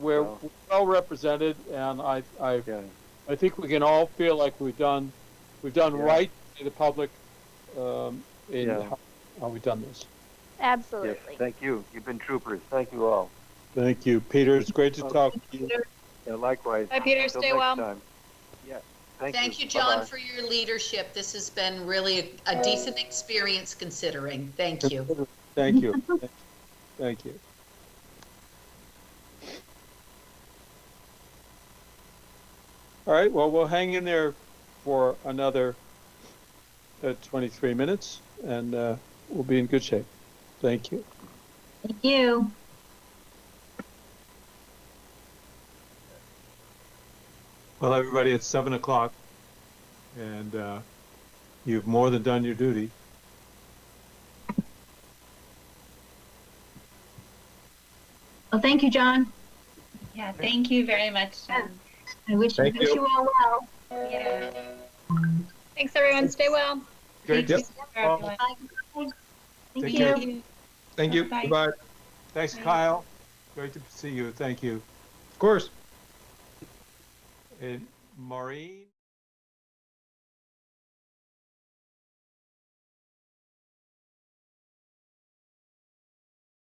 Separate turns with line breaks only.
well represented, and I, I,
Yeah.
I think we can all feel like we've done, we've done
Yeah.
right to the public, um, in
Yeah.
how, how we've done this.
Yes,
Absolutely.
thank you. You've been troopers. Thank you all.
Thank you, Peter. It's great to
Okay.
talk to you.
Yeah, likewise.
Bye, Peter.
Until
Stay
next
well.
time. Yeah, thank you.
Thank you, John,
Bye-bye.
for your leadership. This has been really a a decent experience considering. Thank you.
Thank you. Thank you. All right, well, we'll hang in there for another uh, 23 minutes, and uh, we'll be in good shape. Thank you.
Thank you.
Well, everybody, it's 7 o'clock, and uh, you've more than done your duty.
Well, thank you, John.
Yeah, thank you very much, Jen.
I wish,
Thank
wish
you.
you all well.
Thanks, everyone. Stay well.
Great.
Thank
Yep.
you for everyone.
Bye. Thank
Take
you.
care. Thank you.
Bye.
Goodbye. Thanks, Kyle. Great to see you. Thank you.
Of course.
And Maureen?